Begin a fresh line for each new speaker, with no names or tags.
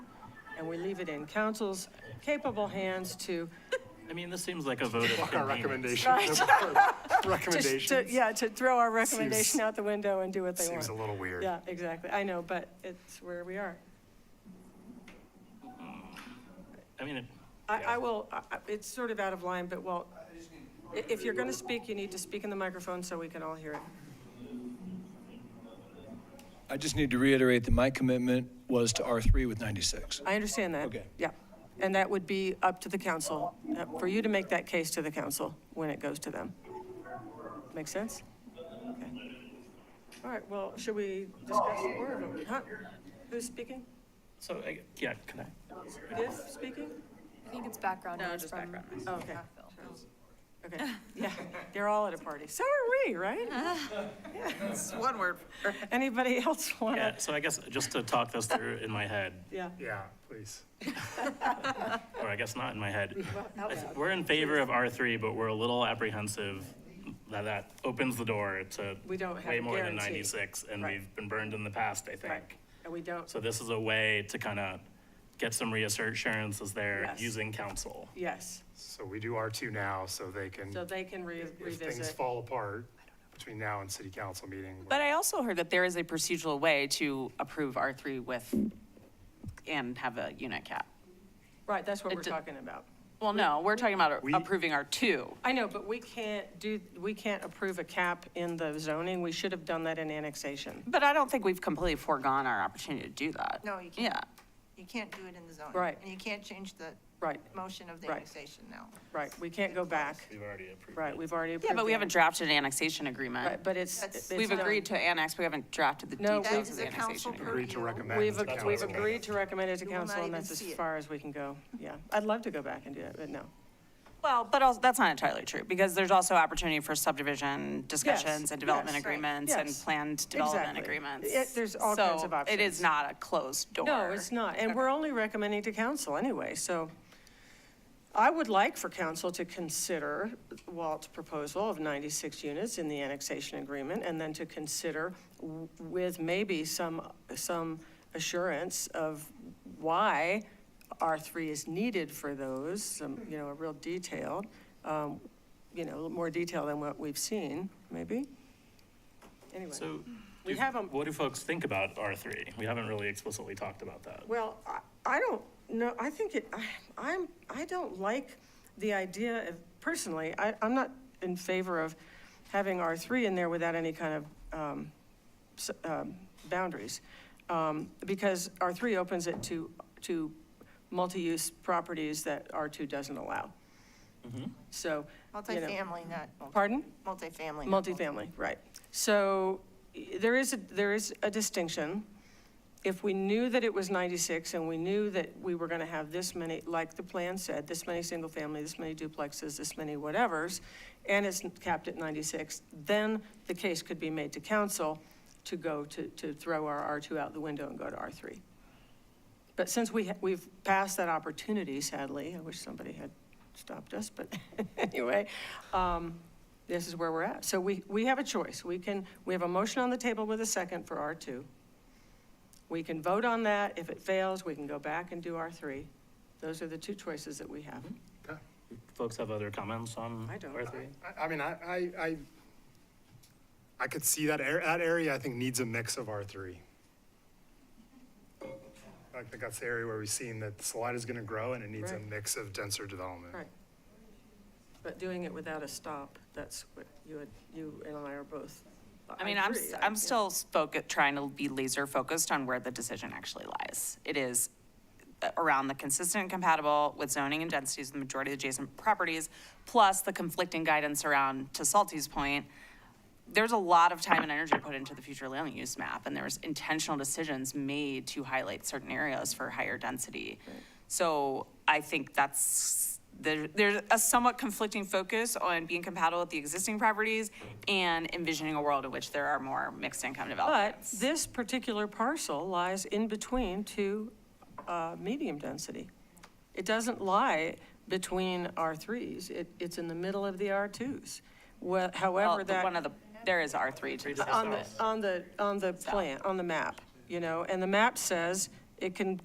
and we leave it in council's capable hands to,
I mean, this seems like a vote of
Fuck our
convenience.
recommendation.
just to,
Recommendations.
yeah, to throw our recommendation out the window and do what they want.
Seems a little weird.
Yeah, exactly. I know, but it's where we are.
I mean, it-
I, I will, I- I- it's sort of out of line, but well, i- if you're going to speak, you need to speak in the microphone so we can all hear it.
I just need to reiterate that my commitment was to R3 with 96.
I understand that.
Okay.
Yeah. And that would be up to the council, uh, for you to make that case to the council when it goes to them. Make sense? Okay. All right, well, should we discuss the order? Huh? Who's speaking?
so, I- yeah, can I?
Viv speaking? Oh,
I think it's background
No,
noise
just
from
background noise.
Okay. Okay, yeah, they're all at a party. So are we, right?
It's one word.
Anybody else want to?
Yeah, so I guess just to talk this through in my head,
Yeah.
Yeah, please.
or I guess not in my head. I th- We're in favor of R3, but we're a little apprehensive that that opens the door to
We don't have
way
a
more than
guarantee.
96, and
Right.
we've been burned in the past, I
Right,
think.
and we don't,
So this is a way to kind of get some reassurances there
Yes.
using council.
yes,
So we do R2 now, so they can,
so they can re-
if things
revisit.
fall apart between now and city council meeting.
But I also heard that there is a procedural way to approve R3 with, and have a unit cap.
Right, that's what
It
we're
d-
talking about.
Well, no, we're talking about
We-
approving R2.
I know, but we can't do, we can't approve a cap in the zoning, we should have done that in annexation.
But I don't think we've completely foregone our opportunity to do that.
No, you can't.
Yeah.
You can't do it in the zoning.
Right.
And you can't change the
Right,
motion of the
Right.
annexation now.
right, we can't go back,
We've already approved.
right, we've already approved.
Yeah, but we
the-
haven't drafted an annexation
Right,
agreement.
but it's.
That's-
it's um,
We've
done.
agreed to annex, we haven't drafted the
No,
That
details of
is
the
a
annexation
council
agreement.
Agreed to
purview.
recommend.
We've,
to
ag-
council.
we've agreed to recommend it to
You will not
council, and
even
that's as
see it.
far as we can go, yeah. I'd love to go back and do that, but no.
Well, but also, that's not entirely true, because there's also opportunity for subdivision discussions and development
yes, right,
agreements and
yes.
planned development
Exactly.
agreements.
It- there's all kinds of
So it
options.
is not a closed door.
No, it's not, and we're only recommending to council anyway, so I would like for council to consider Walt's proposal of 96 units in the annexation agreement, and then to consider w- with maybe some, some assurance of why R3 is needed for those, some, you know, a real detail, um, you know, more detail than what we've seen, maybe? Anyway.
So
We
do-
have 'em-
what do folks think about R3? We haven't really explicitly talked about that.
Well, I, I don't know, I think it, I, I'm, I don't like the idea of, personally, I, I'm not in favor of having R3 in there without any kind of, um, s- um, boundaries. Um, because R3 opens it to, to multi-use properties that R2 doesn't allow. So, you know,
Multifamily, not. multi-
pardon?
Multifamily. not multi-
Multifamily, right. So y- there is, a- there is a distinction. If we knew that it was 96 and we knew that we were going to have this many, like the plan said, this many single-family, this many duplexes, this many whatevers, and it's capped at 96, then the case could be made to council to go to, to throw our R2 out the window and go to R3. But since we, ha- we've passed that opportunity sadly, I wish somebody had stopped us, but anyway, um, this is where we're at. So we, we have a choice. We can, we have a motion on the table with a second for R2. We can vote on that. If it fails, we can go back and do R3. Those are the two choices that we have.
Okay.
Folks have other comments on
I don't.
R3?
I, I mean, I, I, I, I could see that, ar- that area, I think, needs a mix of R3. I think that's the area where we've seen that the slide is gonna grow and it needs a
Right.
mix of denser development.
Right. But doing it without a stop, that's what you, had- you and I are both.
I mean, I'm,
agree,
s-
I-
I'm
yeah.
still spoke, trying to be laser focused on where the decision actually lies. It is uh, around the consistent and compatible with zoning and densities of the majority of adjacent properties, plus the conflicting guidance around, to Salty's point, there's a lot of time and energy put into the future land use map, and there's intentional decisions made to highlight certain areas for higher density. So I think that's, there, there's a somewhat conflicting focus on being compatible with the existing properties and envisioning a world in which there are more mixed income
But
developments.
this particular parcel lies in between two uh, medium density. It doesn't lie between R3s, it, it's in the middle of the R2s. Well,
Well,
However,
the-
that.
One of the, there is R three to the
On
south.
the, on the, on the plan, on the map, you know, and the map says it can